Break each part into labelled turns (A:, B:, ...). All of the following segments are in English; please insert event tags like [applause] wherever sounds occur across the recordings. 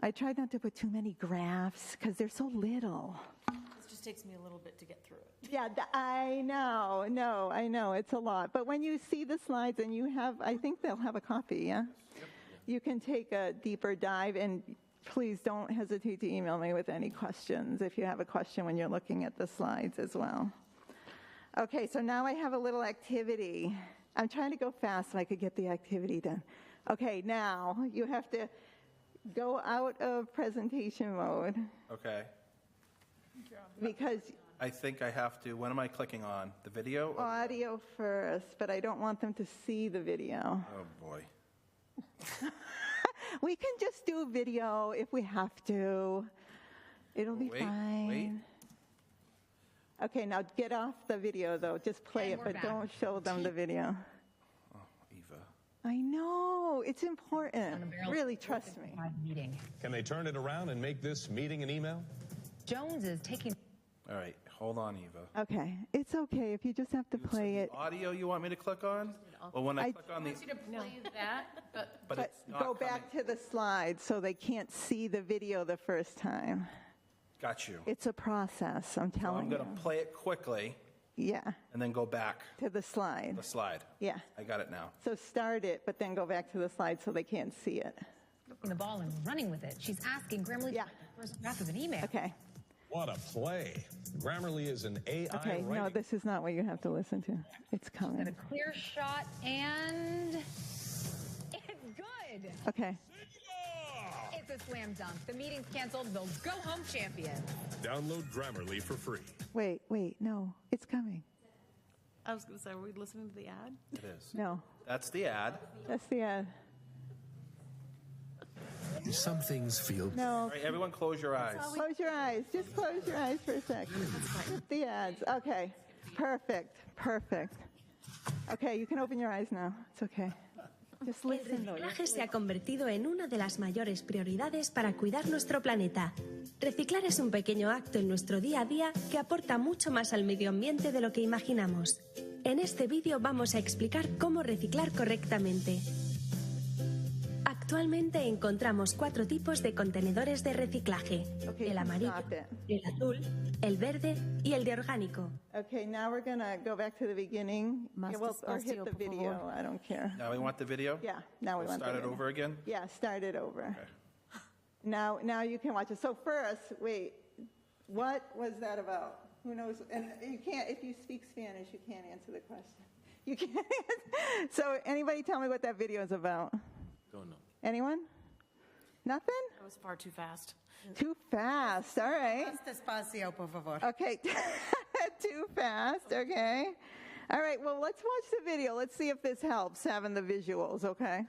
A: I tried not to put too many graphs because they're so little.
B: This just takes me a little bit to get through it.
A: Yeah, th- I know, no, I know, it's a lot. But when you see the slides and you have, I think they'll have a copy, yeah? You can take a deeper dive and please don't hesitate to email me with any questions if you have a question when you're looking at the slides as well. Okay, so now I have a little activity. I'm trying to go fast so I could get the activity done. Okay, now you have to go out of presentation mode
C: Okay.
A: because
C: I think I have to, when am I clicking on? The video? or-
A: audio first, but I don't want them to see the video.
C: Oh, boy.
A: We can just do video if we have to. It'll be
C: Wait,
A: fine.
C: wait.
A: Okay, now get off the video though. Just play it, but don't show them the video.
C: Eva.
A: I know, it's important. Really, trust me.
D: Live meeting.
E: Can they turn it around and make this meeting an email?
D: Jones is taking
C: All right, hold on, Eva.
A: Okay, it's okay if you just have to play it.
C: Audio you want me to click on? Well, when I
A: I-
C: click on the,
F: you to play that, but
C: [laughs] but
A: But
C: it's not
A: go back
C: coming.
A: to the slides so they can't see the video the first time.
C: Got you.
A: It's a process, I'm
C: So I'm
A: telling
C: going to play it quickly
A: you. Yeah,
C: and then go back
A: to the
C: the
A: slide.
C: slide.
A: Yeah.
C: I got it now.
A: So start it, but then go back to the slide so they can't see it.
D: the ball and running with it. She's asking Grammarly
A: Yeah.
D: for the first draft of an email.
A: Okay.
E: What a play. Grammarly is an AI
A: Okay, no,
E: writing-
A: this is not what you have to listen to. It's
D: Got a
A: coming.
D: clear shot and it's good.
A: Okay.
E: Yeah!
D: It's a slam dunk. The meeting's canceled. They'll go home champion.
E: Download Grammarly for free.
A: Wait, wait, no, it's coming.
B: I was going to say, are we listening to the ad?
C: It is.
A: No,
C: That's the ad.
A: that's the ad.
G: Some things feel
C: All
A: No,
C: right, everyone close your eyes.
A: close your eyes. Just close your eyes for a sec. Skip the ads. Okay. Perfect. Perfect. Okay, you can open your eyes now. It's okay. Just listen though.
H: reciclaje se ha convertido en una de las mayores prioridades para cuidar nuestro planeta. Reciclar es un pequeño acto en nuestro día a día que aporta mucho más al medio ambiente de lo que imaginamos. En este vídeo vamos a explicar cómo reciclar correctamente. Actualmente encontramos cuatro tipos de contenedores de reciclaje.
A: Ok, ah,
H: El amarillo,
A: stop it.
H: el azul, el verde y el de orgánico.
A: Okay, now we're gonna go back to the beginning.
B: Más
A: Yeah, well, or hit
B: despacio,
A: the
B: por
A: video.
B: favor.
A: I don't care.
C: Now we want the video?
A: Yeah, now we want
C: We'll
A: the
C: Start it
A: video.
C: over again?
A: Yeah, start it over.
C: Okay.
A: Now, now you can watch it. So first, wait, what was that about? Who knows? And you can't, if you speak Spanish, you can't answer the question. You can't. [laughs] so anybody tell me what that video is about?
G: Don't know.
A: Anyone? Nothing?
B: That was far too fast.
A: Too fast. All right.
F: Despacio, por favor.
A: Okay. [laughs] Too fast. Okay. All right. Well, let's watch the video. Let's see if this helps having the visuals. Okay.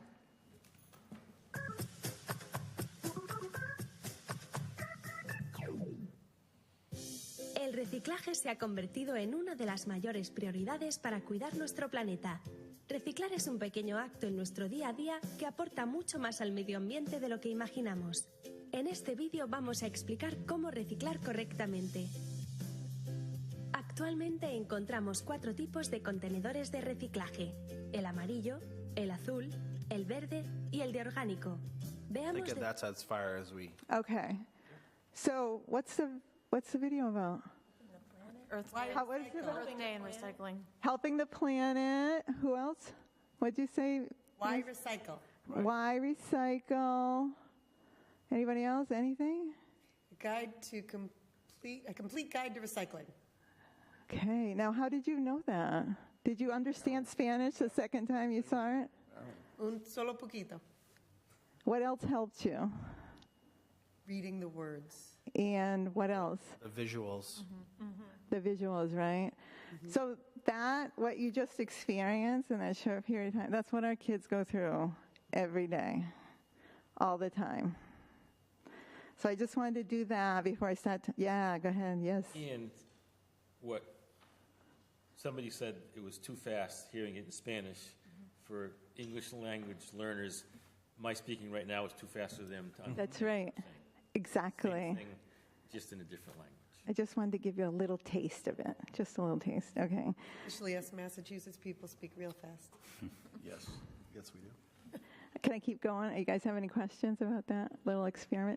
H: El reciclaje se ha convertido en una de las mayores prioridades para cuidar nuestro planeta. Reciclar es un pequeño acto en nuestro día a día que aporta mucho más al medio ambiente de lo que imaginamos. En este vídeo vamos a explicar cómo reciclar correctamente. Actualmente encontramos cuatro tipos de contenedores de reciclaje. El amarillo, el azul, el verde y el de orgánico.
C: I
H: Veamos
C: think
H: de-
C: that's as far as we,
A: Okay. So what's the what's the video about?
B: Earth
A: How, what is it about?
B: Earth Day and recycling.
A: Helping the planet. Who else? What'd you say?
F: Why recycle?
A: Why recycle? Anybody else? Anything?
F: Guide to complete, a complete guide to recycling.
A: Okay. Now, how did you know that? Did you understand Spanish the second time you saw it?
F: Un solo poquito.
A: What else helped you?
F: Reading the words.
A: And what else?
C: the visuals.
A: The visuals, right? So that what you just experienced in that short period of time, that's what our kids go through every day, all the time. So I just wanted to do that before I start. To, yeah, go ahead. Yes.
I: And what, somebody said it was too fast hearing it in Spanish. For English language learners, my speaking right now is too fast for them to understand.
A: That's right. Exactly.
I: Just in a different language.
A: I just wanted to give you a little taste of it, just a little taste. Okay.
F: Especially us Massachusetts people speak real fast.
C: Yes, yes, we do.
A: Can I keep going? You guys have any questions about that little experiment?